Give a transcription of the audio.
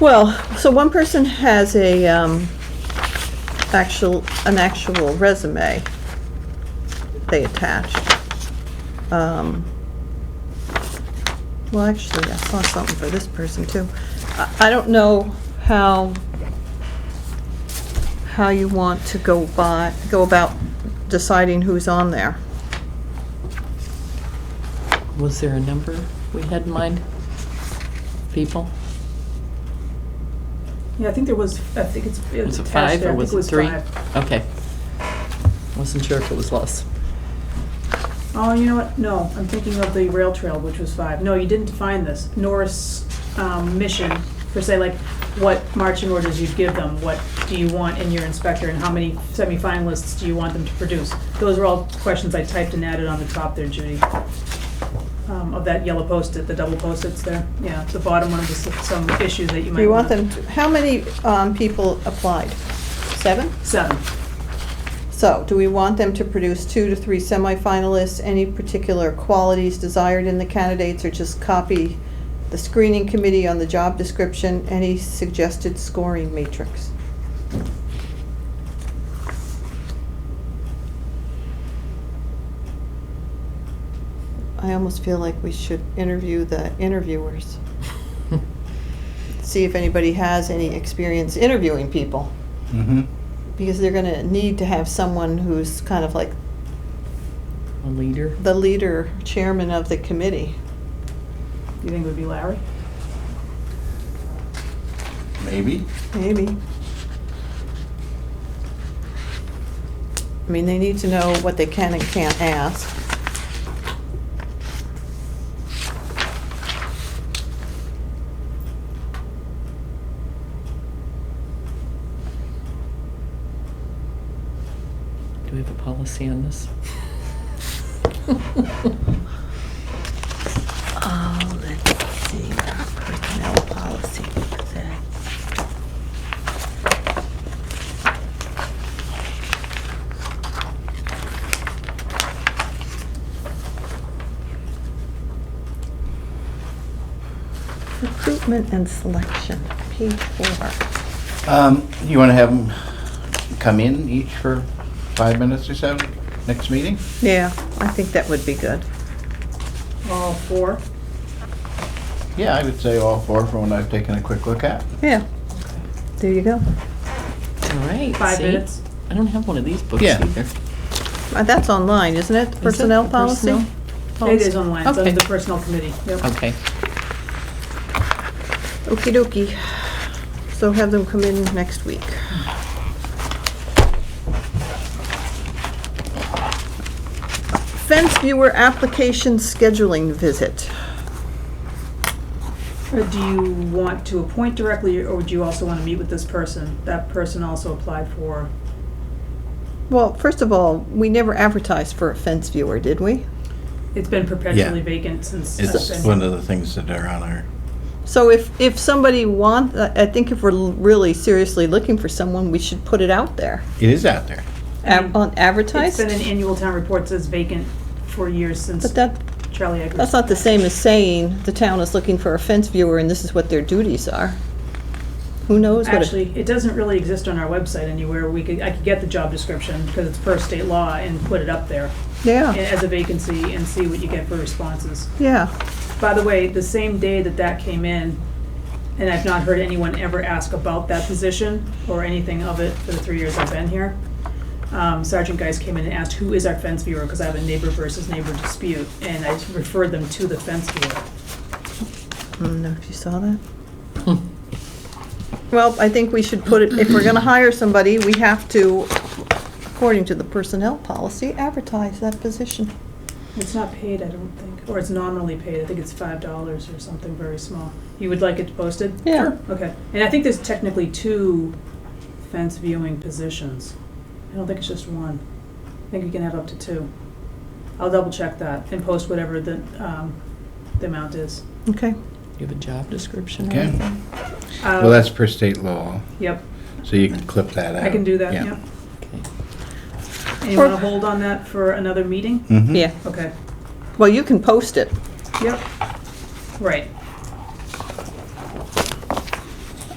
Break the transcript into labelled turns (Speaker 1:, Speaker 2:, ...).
Speaker 1: Well, so one person has a, um, actual, an actual resume they attached. Um, Well, actually, I saw something for this person too. I, I don't know how, how you want to go by, go about deciding who's on there.
Speaker 2: Was there a number we had in mind? People?
Speaker 3: Yeah, I think there was, I think it's.
Speaker 2: Was it
Speaker 3: attached
Speaker 2: five
Speaker 3: there.
Speaker 2: or
Speaker 3: I think
Speaker 2: was it three?
Speaker 3: five.
Speaker 2: Okay. Wasn't sure if it was less.
Speaker 3: Oh, you know what? No, I'm thinking of the rail trail, which was five. No, you didn't define this. Norris um, mission, per se, like what marching orders you'd give them, what do you want in your inspector, and how many semifinalists do you want them to produce? Those are all questions I typed and added on the top there, Judy. Um, Of that yellow post-it, the double post-its there. Yeah, the bottom one is some issues that you
Speaker 1: Do
Speaker 3: might
Speaker 1: you
Speaker 3: want.
Speaker 1: want them, to- how many, um, people applied? Seven?
Speaker 3: Seven.
Speaker 1: So, do we want them to produce two to three semifinalists? Any particular qualities desired in the candidates, or just copy the screening committee on the job description? Any suggested scoring matrix? I almost feel like we should interview the interviewers, see if anybody has any experience interviewing people
Speaker 4: Mm-hmm.
Speaker 1: because they're going to need to have someone who's kind of like
Speaker 2: A leader?
Speaker 1: the leader, chairman of the committee.
Speaker 3: You think it would be Larry?
Speaker 4: Maybe.
Speaker 1: Maybe. I mean, they need to know what they can and can't ask.
Speaker 2: Do we have a policy on this?
Speaker 1: Oh, let's see, personnel policy. Recruitment and selection, page four.
Speaker 4: Um, you want to have them come in each for five minutes or so next meeting?
Speaker 1: Yeah, I think that would be good.
Speaker 3: All four?
Speaker 4: Yeah, I would say all four from what I've taken a quick look at.
Speaker 1: Yeah, there you go.
Speaker 2: All right.
Speaker 3: Five
Speaker 2: see?
Speaker 3: minutes?
Speaker 2: I don't have one of these books
Speaker 4: Yeah.
Speaker 2: either. Is
Speaker 1: Uh, That's online, isn't it?
Speaker 2: it
Speaker 1: Personnel
Speaker 2: the
Speaker 1: policy?
Speaker 2: personnel
Speaker 3: It
Speaker 2: policy?
Speaker 3: is online, it's under
Speaker 2: Okay.
Speaker 3: the personnel committee. Yep.
Speaker 1: Oh.
Speaker 2: Okay.
Speaker 1: Okey dokey. So have them come in next week. Fence viewer application scheduling visit.
Speaker 3: Or Uh, do you want to appoint directly, or would you also want to meet with this person? That person also applied for,
Speaker 1: Well, first of all, we never advertised for a fence viewer, did we?
Speaker 3: it's been perpetually vacant since. I've
Speaker 4: It's
Speaker 3: been-
Speaker 4: one of the things that are on our,
Speaker 1: So if, if somebody want, uh, I I think if we're l- really seriously looking for someone, we should put it out there.
Speaker 4: it is out there.
Speaker 1: Ad- on
Speaker 3: It's
Speaker 1: Advertise,
Speaker 3: been an annual town report says vacant for years since
Speaker 1: but that,
Speaker 3: Charlie Eckers.
Speaker 1: that's not the same as saying the town is looking for a fence viewer and this is what their duties are. Who knows what a
Speaker 3: Actually, it doesn't really exist on our website anywhere. We could, I could get the job description, because it's per state law, and put it up there
Speaker 1: Yeah,
Speaker 3: as a vacancy and see what you get for responses.
Speaker 1: yeah.
Speaker 3: By the way, the same day that that came in, and I've not heard anyone ever ask about that position or anything of it for the three years I've been here, um, Sergeant Geis came in and asked, who is our fence viewer? Because I have a neighbor versus neighbor dispute, and I referred them to the fence viewer.
Speaker 1: I don't know if you saw that. Well, I think we should put it, if we're gonna hire somebody, we have to, according to the personnel policy, advertise that position.
Speaker 3: It's not paid, I don't think, or it's nominally paid. I think it's five dollars or something very small. You would like it posted?
Speaker 1: Yeah.
Speaker 3: Okay, and I think there's technically two fence viewing positions. I don't think it's just one. I think you can have up to two. I'll double check that and post whatever the, um, the amount is.
Speaker 1: Okay.
Speaker 2: Do you have a job description or
Speaker 4: Okay.
Speaker 2: anything?
Speaker 4: Well, that's per state law,
Speaker 3: Uh, Yep,
Speaker 4: so you can clip that out.
Speaker 3: I can do that, yep.
Speaker 2: Okay.
Speaker 3: And you wanna hold on that for another meeting?
Speaker 4: Mhm.
Speaker 1: Yeah,
Speaker 3: Okay,
Speaker 1: well, you can post it.
Speaker 3: yep, right.